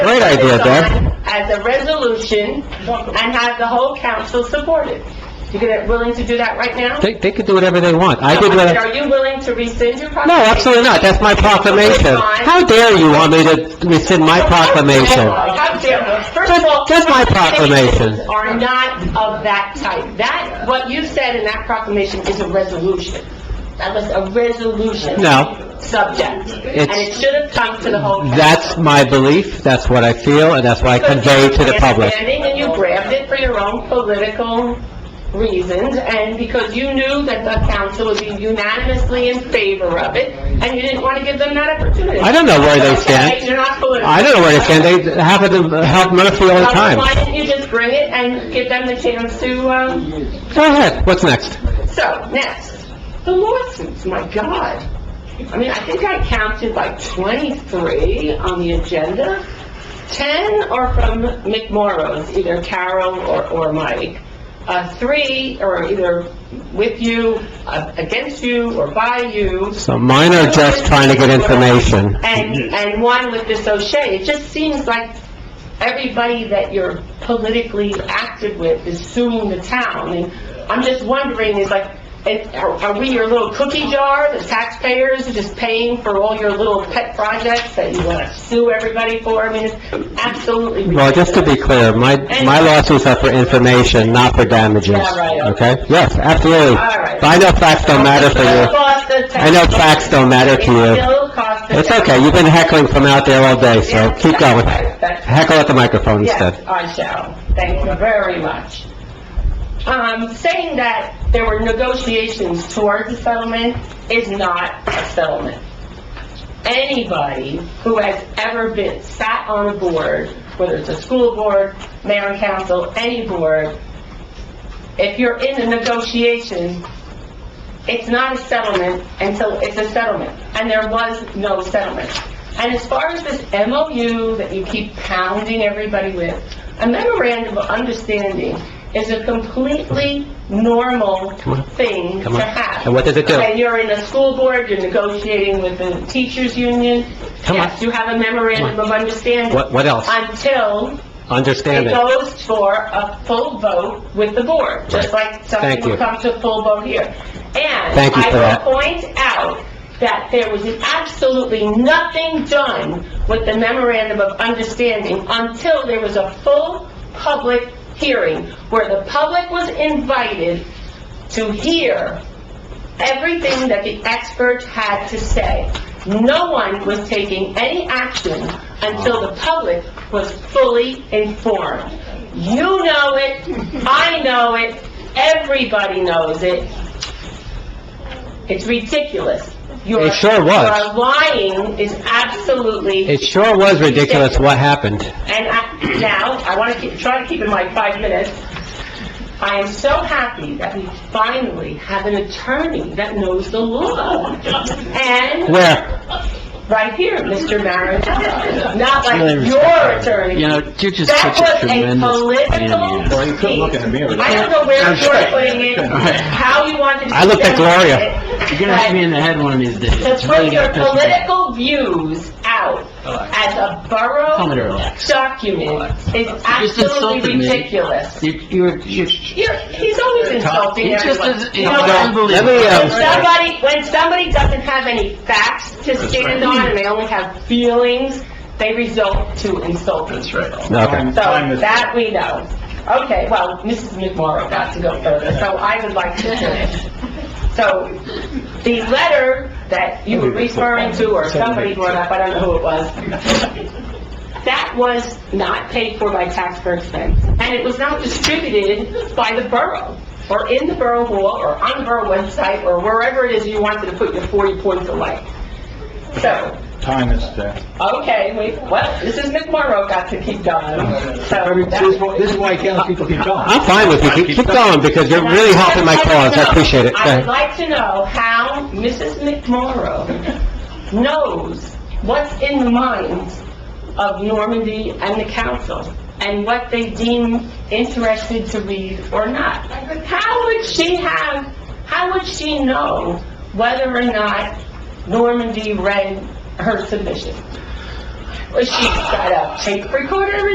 idea, this Deb. on As a resolution and have the whole council support it. You gonna, willing to do that right now? They, they could do whatever they want. I did what I... Are you willing to rescind your proclamation? No, absolutely not. That's my proclamation. How dare you want me to rescind my proclamation? How dare- First of all... That's- that's my proclamation. Are not of that type. That, what you said in that proclamation is a resolution. That was a resolution. No. Subject. And it should have come to the whole council. That's my belief, that's what I feel, and that's what I convey to the public. Understanding, And you grabbed it for your own political reasons, and because you knew that the council would be unanimously in favor of it, and you didn't want to give them that opportunity. I don't know where they stand. Okay, You're not political. I don't know where to stand, they happen to help Murphy all the time. Why didn't you just bring it and give them the chance to, um, Go ahead, what's next? so, next, the lawsuits, my God. I mean, I think I counted like 23 on the agenda. 10 are from McMorro's, either Carol or, or Mike. Uh, three are either with you, uh, against you, or by you. So mine are just trying to get information. And, and one with this O'Shea. It just seems like everybody that you're politically active with is suing the town. And I'm just wondering, is like, it- are are we your little cookie jar, the taxpayers are just paying for all your little pet projects that you want to sue everybody for? I mean, it's absolutely Well, ridiculous. just to be clear, my, my lawsuits are for information, not for damages, okay? Yes, absolutely. But I know facts don't matter for you. I know facts don't matter to you. It's okay, you've been heckling from out there all day, so keep going. Heckle at the microphone instead. Yes, I shall. Thank you very much. Um, saying that there were negotiations towards the settlement is not a settlement. Anybody who has ever been, sat on a board, whether it's a school board, mayor and council, any board, if you're in a negotiation, it's not a settlement until it's a settlement, and there was no settlement. And as far as this MOU that you keep pounding everybody with, a memorandum of understanding is a completely normal on. thing Come on. to have. And what does it do? When you're in a school board, you're negotiating with the teachers' union, Come on. yes, you have a memorandum of understanding. What, what else? Until Understand it it. goes for a full vote with the board, just Right. like Thank something you. will come to a full vote here. And Thank you for that. I will point out that there was absolutely nothing done with the memorandum of understanding until there was a full public hearing where the public was invited to hear everything that the experts had to say. No one was taking any action until the public was fully informed. You know it, I know it, everybody knows it. It's ridiculous. You are- It sure was. You are lying is absolutely It sure was ridiculous what happened. and I- now, I want to keep, try to keep in my five minutes. I am so happy that we finally have an attorney that knows the law. And, Where? right here, Mr. Maranello, not like your respect. attorney. You know, you're just That such a was a tremendous political plan. piece. I don't know where you were putting it, how you wanted to... I looked at Gloria. present it, You're gonna hit me in the head one of these days. but It's To really put your gonna piss me off. political views out as a borough... Tell me to relax. document is just absolutely insulted me. ridiculous. You- You're, you're, You're, he's always insulting it's just, everyone. it's You know what? Let unbelievable. me, When um, somebody, when somebody doesn't have any facts to stand on and they only have feelings, they result to insulting. That's right. okay. So that we know. Okay, well, Mrs. McMorro got to go further, so I would like to finish. So the letter that you were referring to, or somebody brought up, I don't know who it was, that was not paid for by taxpayer expense, and it was not distributed by the borough, or in the borough hall, or on the borough website, or wherever it is you wanted to put your 40 points of light. So, Time is there. Okay, we, well, this is McMorro got to keep going, so. that- This is why council people keep going. I'm fine with you, Keep- keep going, because you're really helping my cause, I appreciate it. Go I would ahead. like to know how Mrs. McMorro knows what's in the minds of Normandy and the council, and what they deem interested to read or not. How would she have, how would she know whether or not Normandy read her submission? Well, she got a tape recorder